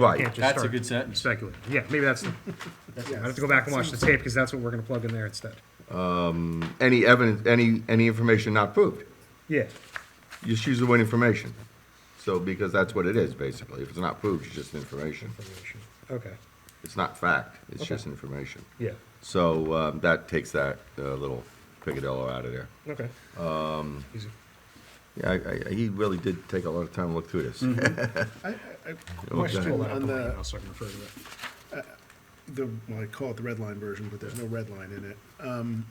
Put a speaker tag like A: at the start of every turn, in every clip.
A: Right.
B: You can't just
C: That's a
B: start
C: good sentence.
B: Speculating. Yeah, maybe that's, the- yeah, I have to go back and watch the tape because that's what we're gonna plug in there instead.
A: Any evidence, any, any information not proved.
B: Yeah,
A: You Just use the word information. So, because that's what it is, basically. If it's not proved, it's just information.
B: okay,
A: It's not fact, it's just information.
B: yeah,
A: So, um, that takes that, uh, little picadillo out of there.
B: okay. Easy.
A: Yeah, I, I, he really did take a lot of time to look through this.
D: Mm-hmm. I, I, I
B: Pull
D: question
B: that up
D: on
B: on my
D: the,
B: email so I can refer to that.
D: the, well, I call it the red line version, but there's no red line in it. Um,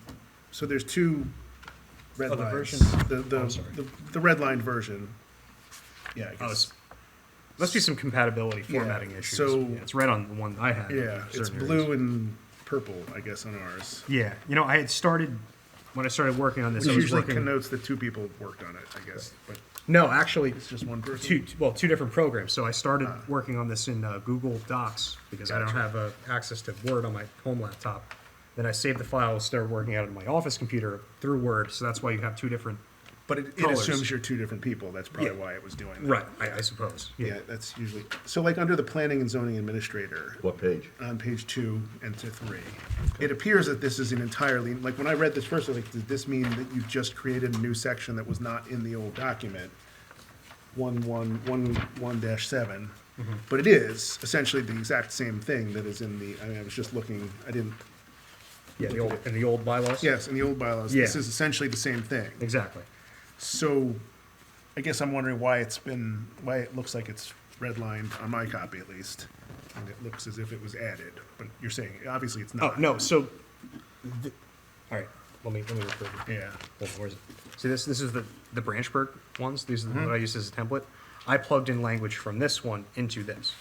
D: so there's two red
B: Oh, the
D: lines.
B: version-
D: The, the,
B: I'm sorry.
D: the, the red line version. Yeah, I
B: Oh,
D: guess.
B: it's- Must be some compatibility formatting
D: Yeah,
B: issues.
D: so-
B: Yeah, It's red on the one I had. in
D: Yeah, it's
B: certain areas.
D: blue and purple, I guess, on ours.
B: Yeah, you know, I had started, when I started working on this,
D: Which
B: I was
D: usually
B: working.
D: connotes that two people worked on it, I guess, but
B: No, actually,
D: it's just one person.
B: two, well, two different programs. So I started working on this in uh, Google Docs because I don't have uh, access to Word on my home laptop. Then I saved the file, started working out of my office computer through Word. So that's why you have two different.
D: But it, it
B: colours.
D: assumes you're two different people. That's probably
B: Yeah.
D: why it was doing that.
B: Right, I, I suppose.
D: Yeah, that's usually, so like under the planning and zoning administrator,
A: What page?
D: on page two and to three. It appears that this is an entirely, like, when I read this first, I was like, does this mean that you've just created a new section that was not in the old document? One, one, one, one dash seven,
B: Mm-hmm.
D: but it is essentially the exact same thing that is in the, I mean, I was just looking, I didn't,
B: Yeah, the old, in the old bylaws?
D: yes, in the old bylaws, this
B: Yeah.
D: is essentially the same thing.
B: Exactly.
D: So, I guess I'm wondering why it's been, why it looks like it's redlined on my copy at least. And it looks as if it was added, but you're saying, obviously it's
B: Oh,
D: not.
B: no, so, th- all right, let me, let me refer to
D: Yeah.
B: Hold on, where is it? See, this, this is the, the Branchburg ones. These are
D: Mm-hmm.
B: the what I used as a template. I plugged in language from this one into this.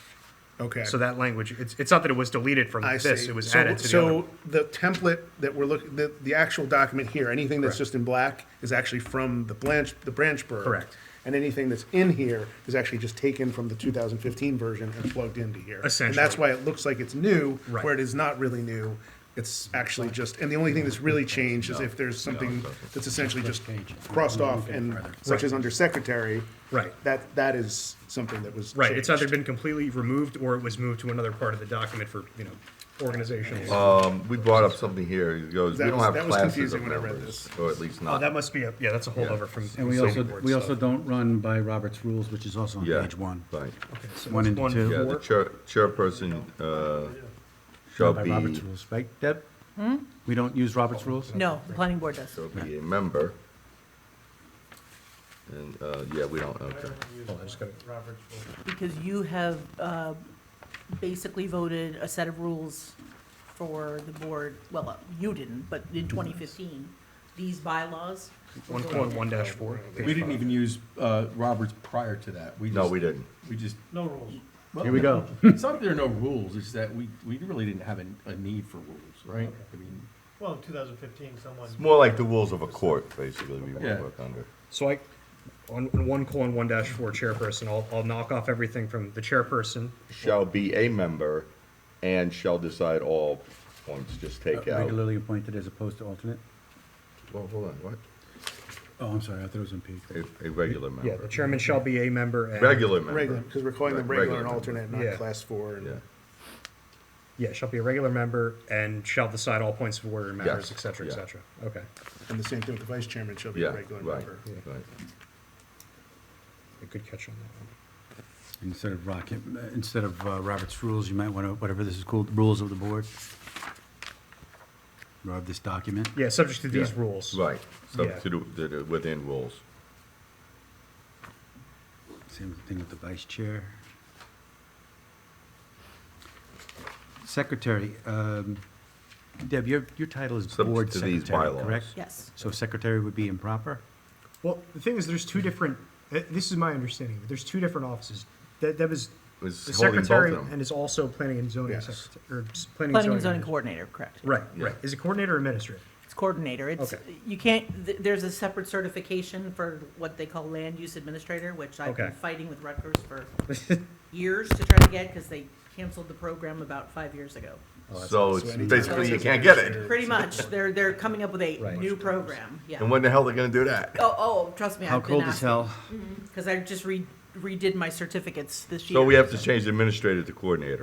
D: Okay.
B: So that language, it's, it's not that it was deleted from
D: I
B: this,
D: see.
B: it was
D: So-
B: added to the other.
D: So the template that we're looking, the, the actual document here, anything that's
B: Correct.
D: just in black is actually from the Blanch, the Branchburg.
B: Correct.
D: And anything that's in here is actually just taken from the 2015 version and plugged into here. And that's
B: Essentially.
D: why it looks like it's new,
B: Right.
D: where it is not really new. It's actually just, and the only thing that's really changed is if there's something that's essentially just crossed off and such as under secretary.
B: Right.
D: That, that is something that was.
B: Right, it's either
D: changed.
B: been completely removed or it was moved to another part of the document for, you know, organizational.
A: Um, we brought up something here. It goes, we
D: That
A: don't
D: was-
A: have
D: that was
A: classes of
D: confusing when I read
A: members,
D: this.
A: or at least
B: Oh,
A: not.
B: that must be, a yeah, that's a holdover from.
E: And we
B: from
E: also,
B: board
E: we
B: stuff.
E: also don't run by Robert's rules, which is also on
A: Yeah,
E: page one.
A: Right.
B: Okay, so
E: one
B: that's
E: and two.
A: Yeah, the
B: four.
A: chair, chairperson, uh, shall
E: By
A: be,
E: Robert's rules, right, Deb? We don't use Robert's rules?
F: No, the planning board does.
A: shall be a member. And, uh, yeah, we don't, okay.
B: Hold on, I just gotta-
F: Because you have uh, basically voted a set of rules for the board, well, uh, you didn't, but in 2015, these bylaws. were
B: One
F: voted
B: point
F: in.
B: one dash four.
C: We didn't even use uh, Roberts prior to that.
A: No,
C: just-
A: we didn't.
C: We just. No rules.
E: Here we go.
C: It's not that there are no rules, it's that we, we really didn't have a, a need for rules, right? I mean,
G: Well, in 2015, someone,
A: It's more like the rules of a court, basically, we
C: Yeah.
A: wanna work under.
B: So I, on on one colon one dash four chairperson, I'll, I'll knock off everything from the chairperson.
A: Shall be a member and shall decide all points, just take out.
E: Regularly appointed as opposed to alternate?
A: Uh, Well, hold on, what?
E: Oh, I'm sorry, I thought it was on page.
A: A, a regular
B: Yeah, the
A: member.
B: chairman shall be a member and.
A: Regular
D: Regular,
A: member.
D: because we're calling them
A: Re-
D: regular and
A: regular.
D: alternate, not
B: Yeah.
D: class four and.
A: Yeah.
B: Yeah, shall be a regular member and shall decide all points of order and matters,
A: Yes,
B: et cetera, et
A: yeah.
B: cetera. Okay.
D: And the same thing with the vice chairman, she'll be
A: Yeah,
D: a regular
A: right,
D: member.
A: right.
B: A good catch on that
E: Instead of Rocket, instead of uh, Robert's rules, you might want to, whatever this is called, rules of the board. Rob, this document.
B: one. Yeah, subject to these
A: Yeah,
B: rules.
A: Right, so
B: Yeah.
A: to do, to do within rules.
E: Same thing with the vice chair. Secretary, um, Deb, your, your title is
A: Subject
E: board
A: to these
E: secretary,
A: bylaws.
E: correct?
F: Yes.
E: So secretary would be improper?
B: Well, the thing is, there's two different, uh, this is my understanding, but there's two different offices. That, that was the
A: Was holding both
B: secretary
A: of them.
B: and is also planning and zoning
D: Yes.
B: secretary, or s- planning and
F: Planning
B: zoning.
F: and zoning
B: administrator.
F: coordinator, correct.
B: Right,
A: Yeah.
B: right. Is it coordinator or administrator?
F: It's coordinator. It's,
B: Okay.
F: you can't, th- there's a separate certification for what they call land use administrator, which I've been
B: Okay.
F: fighting with Rutgers for years to try to get, because they canceled the program about five years ago.
D: Oh,
A: So it's
D: anytime
A: basically, you
D: it's-
A: can't get it.
F: Pretty much, they're, they're coming up with a
B: Right.
F: new program, yeah.
A: And when the hell they gonna do that?
F: Oh, oh, trust me,
E: How
F: I've been
E: cold is
F: asking,
E: hell?
F: because I just read redid my certificates this year.
A: So we have to change administrator to coordinator.